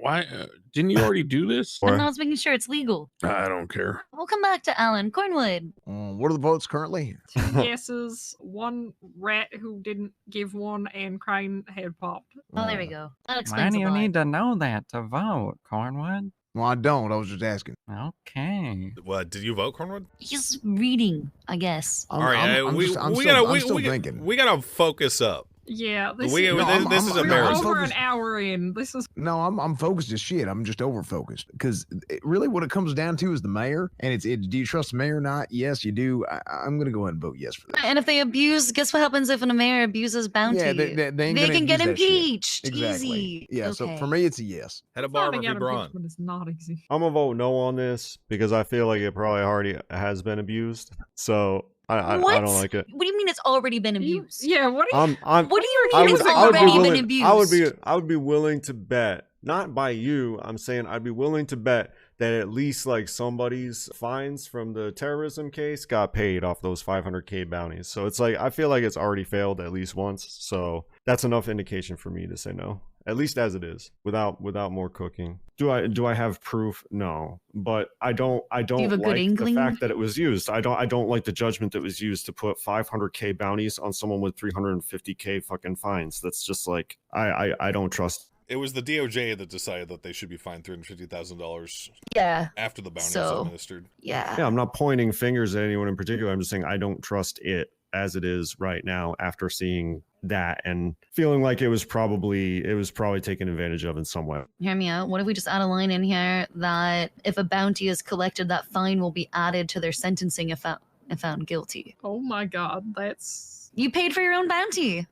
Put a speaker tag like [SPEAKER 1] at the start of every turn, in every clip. [SPEAKER 1] why uh, didn't you already do this?
[SPEAKER 2] Or-
[SPEAKER 3] I'm the one's making sure it's legal.
[SPEAKER 1] I don't care.
[SPEAKER 3] We'll come back to Alan Cornwood.
[SPEAKER 4] Um, what are the votes currently?
[SPEAKER 2] Two
[SPEAKER 5] Guesses one rat who didn't give one, and Crane had popped.
[SPEAKER 3] Oh, there
[SPEAKER 4] Uh,
[SPEAKER 3] we go. That
[SPEAKER 6] Why
[SPEAKER 3] explains
[SPEAKER 6] do
[SPEAKER 3] a
[SPEAKER 6] you
[SPEAKER 3] lot.
[SPEAKER 6] need to know that to vote, Cornwood?
[SPEAKER 4] Well, I don't. I was just asking.
[SPEAKER 6] Okay.
[SPEAKER 2] What did you vote, Cornwood?
[SPEAKER 3] He's reading, I guess.
[SPEAKER 4] I'm,
[SPEAKER 2] All right,
[SPEAKER 4] I'm-
[SPEAKER 2] uh,
[SPEAKER 4] I'm
[SPEAKER 2] we
[SPEAKER 4] just- I'm
[SPEAKER 2] we
[SPEAKER 4] still-
[SPEAKER 2] gotta
[SPEAKER 4] I'm
[SPEAKER 2] we,
[SPEAKER 4] still
[SPEAKER 2] we,
[SPEAKER 4] thinking.
[SPEAKER 2] we gotta focus up.
[SPEAKER 5] Yeah, this
[SPEAKER 2] We-
[SPEAKER 5] is,
[SPEAKER 2] No, this- I'm- this I'm- is
[SPEAKER 5] we're
[SPEAKER 2] embarrassing.
[SPEAKER 5] over an
[SPEAKER 4] focused.
[SPEAKER 5] hour in. This is
[SPEAKER 4] No, I'm I'm focused as shit. I'm just over focused because really what it comes down to is the mayor, and it's it, do you trust the mayor or not? Yes, you do. I, I'm gonna go ahead and vote yes for that.
[SPEAKER 3] And if they abuse, guess what happens if an mayor abuses bounty?
[SPEAKER 4] yeah, they,
[SPEAKER 3] they,
[SPEAKER 4] they, they ain't gonna
[SPEAKER 3] can get
[SPEAKER 4] use that shit.
[SPEAKER 3] impeached.
[SPEAKER 4] Exactly.
[SPEAKER 3] Easy.
[SPEAKER 4] Yeah. So
[SPEAKER 3] Okay.
[SPEAKER 4] for me, it's a yes.
[SPEAKER 2] Had a bar
[SPEAKER 5] finding out
[SPEAKER 2] with Braun.
[SPEAKER 5] impeachment is not easy.
[SPEAKER 7] I'm gonna vote no on this because I feel like it probably already has been abused. So I I, I
[SPEAKER 3] What?
[SPEAKER 7] don't like it.
[SPEAKER 3] What do you mean it's already been
[SPEAKER 5] You-
[SPEAKER 3] abused?
[SPEAKER 5] yeah, what do you
[SPEAKER 7] I'm I'm
[SPEAKER 3] What do you
[SPEAKER 7] I
[SPEAKER 3] mean
[SPEAKER 7] would,
[SPEAKER 3] it's
[SPEAKER 7] I would be
[SPEAKER 3] already been
[SPEAKER 7] willing,
[SPEAKER 3] abused?
[SPEAKER 7] I would be I would be willing to bet, not by you, I'm saying I'd be willing to bet that at least like somebody's fines from the terrorism case got paid off those 500k bounties. So it's like I feel like it's already failed at least once. So that's enough indication for me to say no. At least as it is, without without more cooking. Do I do I have proof? No, but I don't I don't
[SPEAKER 3] you have a good
[SPEAKER 7] like the
[SPEAKER 3] inkling?
[SPEAKER 7] fact that it was used. I don't I don't like the judgment that was used to put 500k bounties on someone with 350k fucking fines. That's just like I I, I don't trust.
[SPEAKER 2] It was the DOJ that decided that they should be fined three hundred fifty thousand dollars
[SPEAKER 3] yeah.
[SPEAKER 2] after the bounty
[SPEAKER 3] So-
[SPEAKER 2] was administered.
[SPEAKER 3] Yeah.
[SPEAKER 7] Yeah, I'm not pointing fingers at anyone in particular. I'm just saying I don't trust it as it is right now after seeing that and feeling like it was probably it was probably taken advantage of in some way.
[SPEAKER 3] Hear me out. What if we just add a line in here that if a bounty is collected, that fine will be added to their sentencing if found, if found guilty?
[SPEAKER 5] Oh my god, that's
[SPEAKER 3] You paid for your own bounty.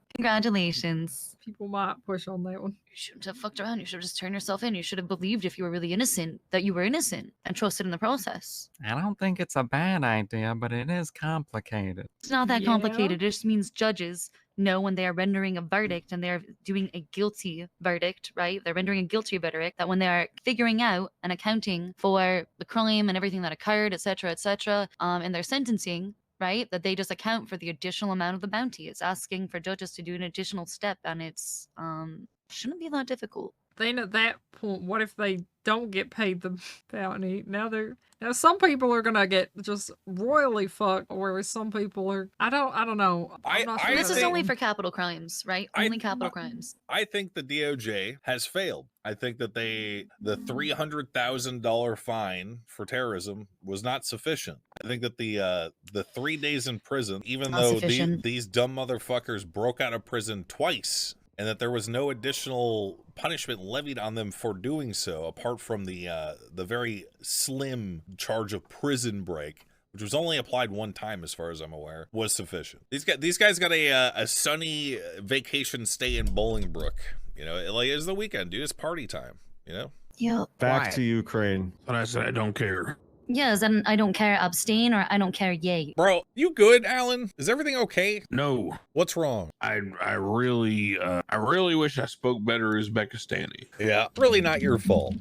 [SPEAKER 3] Congratulations.
[SPEAKER 5] people might push on that one.
[SPEAKER 3] You shouldn't have fucked around. You should have just turned yourself in. You should have believed if you were really innocent that you were innocent and trusted in the process.
[SPEAKER 6] I don't think it's a bad idea, but it is complicated.
[SPEAKER 3] It's not that
[SPEAKER 5] Yeah.
[SPEAKER 3] complicated. It just means judges know when they are rendering a verdict and they're doing a guilty verdict, right? They're rendering a guilty verdict that when they are figuring out and accounting for the crime and everything that occurred, et cetera, et cetera, um, in their sentencing, right? That they just account for the additional amount of the bounty. It's asking for judges to do an additional step and it's um shouldn't be that difficult.
[SPEAKER 5] Then at that point, what if they don't get paid the bounty? Now they're now some people are gonna get just royally fucked, whereas some people are. I don't. I don't know.
[SPEAKER 2] I-
[SPEAKER 5] I'm not
[SPEAKER 2] I
[SPEAKER 5] sure
[SPEAKER 3] And this is
[SPEAKER 2] think-
[SPEAKER 3] only for capital crimes, right?
[SPEAKER 2] I-
[SPEAKER 3] Only capital
[SPEAKER 2] I-
[SPEAKER 3] crimes.
[SPEAKER 2] I think the DOJ has failed. I think that they the three hundred thousand dollar fine for terrorism was not sufficient. I think that the uh the three days in prison, even
[SPEAKER 3] Not
[SPEAKER 2] though the,
[SPEAKER 3] sufficient.
[SPEAKER 2] these dumb motherfuckers broke out of prison twice, and that there was no additional punishment levied on them for doing so, apart from the uh the very slim charge of prison break which was only applied one time as far as I'm aware, was sufficient. These guys, these guys got a uh, a sunny vacation stay in Bolingbrook. You know, like it's the weekend, dude. It's party time. You know,
[SPEAKER 3] Yep.
[SPEAKER 7] Back
[SPEAKER 4] Quiet.
[SPEAKER 7] to Ukraine.
[SPEAKER 1] But I said I don't care.
[SPEAKER 3] Yes, and I don't care abstain or I don't care yay.
[SPEAKER 2] bro, you good, Alan? Is everything okay?
[SPEAKER 1] No,
[SPEAKER 2] What's wrong?
[SPEAKER 1] I I really uh, I really wish I spoke better Uzbekistani.
[SPEAKER 2] Yeah, really not your fault.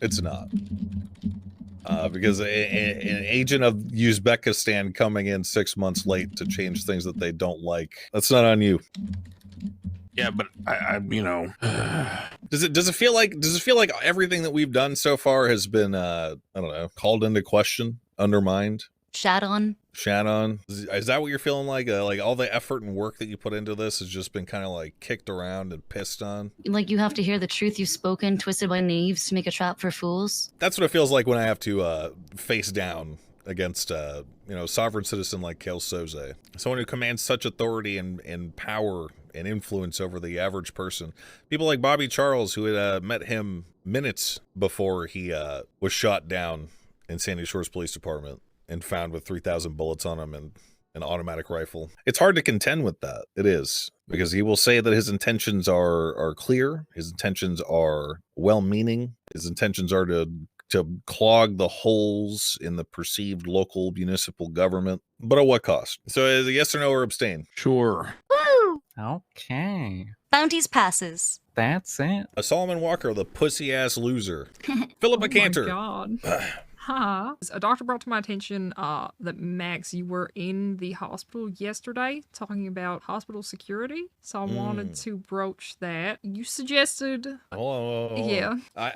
[SPEAKER 2] It's not. Uh, because a, a- an agent of Uzbekistan coming in six months late to change things that they don't like—that's not on you.
[SPEAKER 1] Yeah, but I, I you know
[SPEAKER 2] Does it does it feel like does it feel like everything that we've done so far has been uh I don't know called into question, undermined,
[SPEAKER 3] Shat on.
[SPEAKER 2] shat on? Is, is that what you're feeling like? Uh, like all the effort and work that you put into this has just been kind of like kicked around and pissed on.
[SPEAKER 3] like you have to hear the truth you've spoken twisted by knaves to make a trap for fools
[SPEAKER 2] That's what it feels like when I have to uh face down against uh you know sovereign citizen like Kel Soze, someone who commands such authority and and power and influence over the average person. People like Bobby Charles, who had uh, met him minutes before he uh was shot down in Sandy Shores Police Department and found with 3,000 bullets on him and an automatic rifle. It's hard to contend with that. It is because he will say that his intentions are are clear, his intentions are well-meaning, his intentions are to to clog the holes in the perceived local municipal government, but at what cost? So is it yes or no or abstain?
[SPEAKER 1] sure.
[SPEAKER 3] Woo!
[SPEAKER 6] Okay.
[SPEAKER 3] bounties passes
[SPEAKER 6] That's it.
[SPEAKER 2] A Solomon Walker, the pussy ass loser.
[SPEAKER 5] Oh
[SPEAKER 2] Philippa
[SPEAKER 5] my
[SPEAKER 2] Cantor.
[SPEAKER 5] God. Hi. A doctor brought to my attention uh, that Max, you were in the hospital yesterday talking about hospital
[SPEAKER 2] Mm.
[SPEAKER 5] security. So I wanted to broach that. You suggested,
[SPEAKER 2] Hold on, hold on, hold on.
[SPEAKER 5] yeah,
[SPEAKER 2] I,